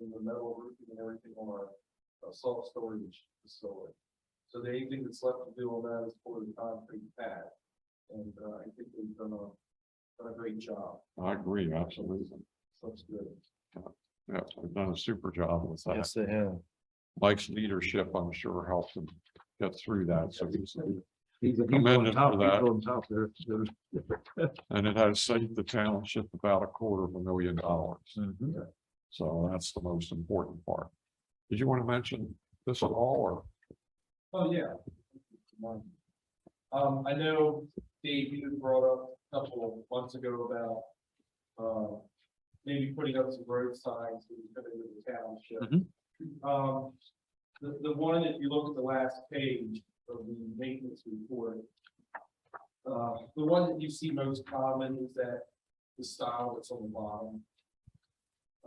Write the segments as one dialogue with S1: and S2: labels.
S1: the metal roofing and everything on our uh, salt storage facility. So the only thing that's left to do on that is pour the concrete pad. And, uh, I think they've done a, done a great job,
S2: I agree, absolutely.
S1: so it's good.
S2: Yeah, they've done a super job with that.
S3: they have.
S2: Mike's leadership, I'm sure, helped him get through that. So he's,
S3: He's a
S2: Commend him for that.
S3: top there.
S2: and it has saved the township about a quarter of a million dollars.
S3: Mhm.
S2: So that's the most important part. Did you want to mention this at all
S1: Oh, yeah. Um, I know Dave, you brought up a couple of months ago about, uh, maybe putting up some road signs when you come into the township. Um, the, the one, if you look at the last page of the maintenance report, uh, the one that you see most common is that the style that's on the bottom.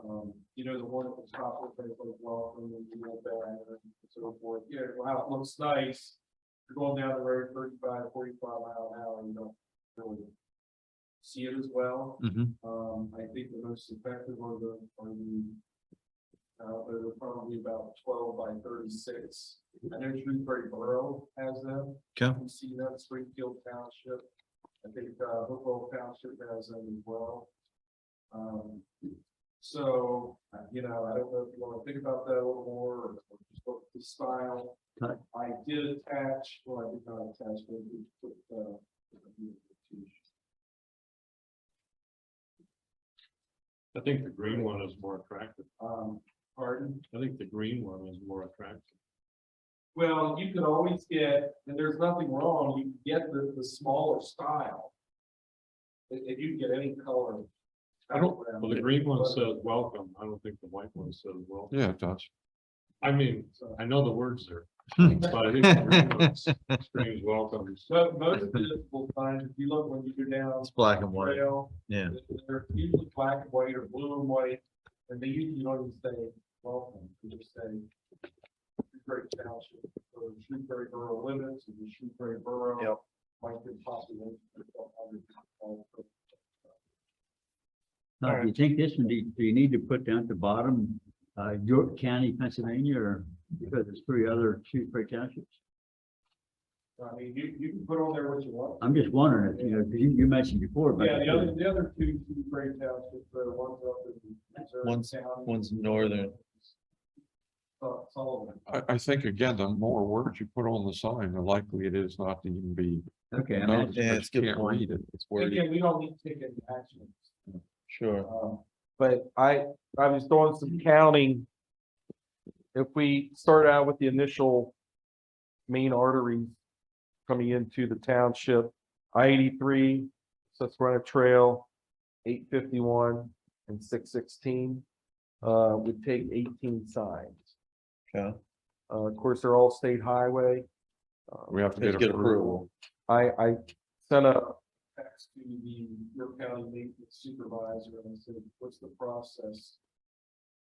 S1: Um, you know, the one at the top of it, like welcome and you know, banner and so forth, yeah, wow, it looks nice. You're going down the road 35, 45 mile an hour, you don't really see it as well.
S3: Mhm.
S1: Um, I think the most effective are the, are the, uh, they're probably about twelve by thirty-six. I know Shrewsbury Borough has them.
S3: Okay.
S1: You see that Springfield Township, I think, uh, Hopewell Township has them as well. Um, so, uh, you know, I don't know if you wanna think about that a little more, or or just look at the style.
S3: Okay.
S1: I did attach, well, I did not attach, but we put, uh.
S4: I think the green one is more attractive.
S1: Um, pardon,
S4: I think the green one is more attractive.
S1: well, you could always get, and there's nothing wrong, you can get the, the smaller style. If, if you get any color.
S4: I don't-
S1: background,
S4: Well, the green one says welcome. I don't think the white one says well.
S2: or? Yeah, it does.
S4: I mean,
S1: so.
S4: I know the words there. But I think the green one screams welcome.
S1: So most of the will find, if you look when you go down.
S3: It's black and white.
S1: trail,
S3: Yeah.
S1: They're usually black and white or blue and white, and they usually don't even say welcome, they just say. Shrewsbury Township, or Shrewsbury Borough limits, and the Shrewsbury Borough.
S3: Yep.
S1: Might be possible. Well,
S5: Now, do you think this, one, do you, do you need to put down at the bottom, uh, York County, Pennsylvania, or because there's three other Shrewsbury townships?
S1: I mean, you, you can put on there what you want.
S5: I'm just wondering, if, you know, 'cause you, you mentioned before, but.
S1: Yeah, the other, the other two Shrewsbury Townships, the ones up in. Missouri
S3: One's-
S1: County.
S3: one's northern.
S1: Uh, Sullivan.
S2: I, I think again, the more words you put on the sign, the likely it is not to even be.
S5: Okay, I mean,
S2: noticed,
S3: Yeah,
S2: but
S3: it's
S2: you
S3: good
S2: can't
S3: point.
S2: read it.
S3: It's
S1: Again, we don't need to take any action.
S3: sure.
S1: Um, But I, I was doing some counting. If we start out with the initial main arteries coming into the township, I eighty-three, Seth Runner Trail, eight fifty-one and six sixteen, uh, would take eighteen signs.
S3: Okay.
S1: Uh, of course, they're all state highway. Uh,
S2: We have to
S3: Let's
S2: get
S3: get
S2: approval.
S3: approval.
S1: I, I sent a text to the York County maintenance supervisor and I said, what's the process?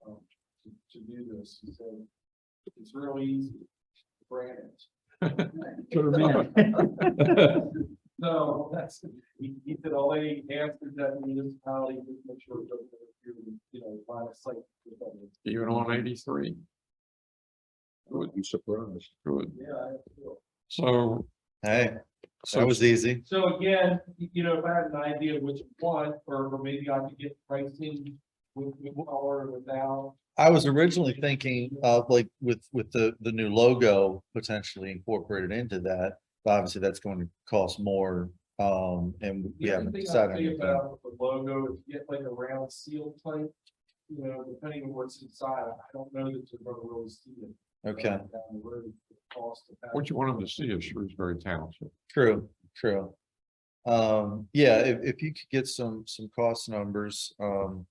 S1: um, to, to do this? He said, it's real easy, grant it.
S5: put 'em in.
S1: No, that's, he, he said, all they asked is that municipality just make sure it doesn't interfere with, you know, line of sight. with others."
S2: Even on eighty-three? Wouldn't be surprised. Good.
S1: Yeah, I feel.
S2: So,
S3: Hey, that
S2: so
S3: was easy.
S1: So again, y- you know, if I had an idea which one, or or maybe I could get pricing with, with color and without.
S3: I was originally thinking of like with, with the, the new logo potentially incorporated into that. But obviously that's going to cost more, um, and we
S1: The only
S3: haven't
S1: thing I
S3: decided.
S1: think
S3: anything.
S1: about The logo, if you get like a round seal type, you know, depending on what's inside, I don't know that you're gonna really see it.
S3: Okay,
S1: Down the road, the cost of that.
S2: what you want them to see is Shrewsbury Township.
S3: true, true. Um, yeah, if, if you could get some, some cost numbers, um.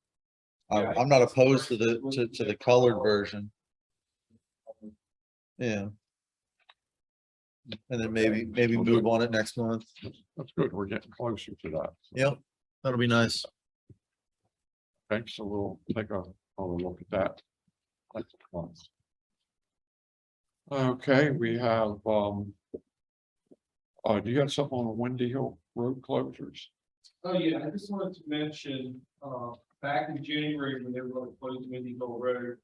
S1: Yeah,
S3: I'm,
S1: I
S3: I'm not
S1: think the
S3: opposed to
S1: first
S3: the,
S1: one
S3: to,
S1: would
S3: to
S1: be
S3: the
S1: the
S3: colored
S1: color.
S3: version, yeah. And then maybe, maybe
S2: Okay.
S3: move on it next month.
S2: That's good. We're getting closer to that.
S3: Yep, that'll be nice.
S2: Thanks. So we'll take a, a look at that. next month. Okay, we have, um, uh, do you have something on the Windy Hill road closures?
S1: Oh, yeah, I just wanted to mention, uh, back in January, when they were gonna close Windy Hill Road,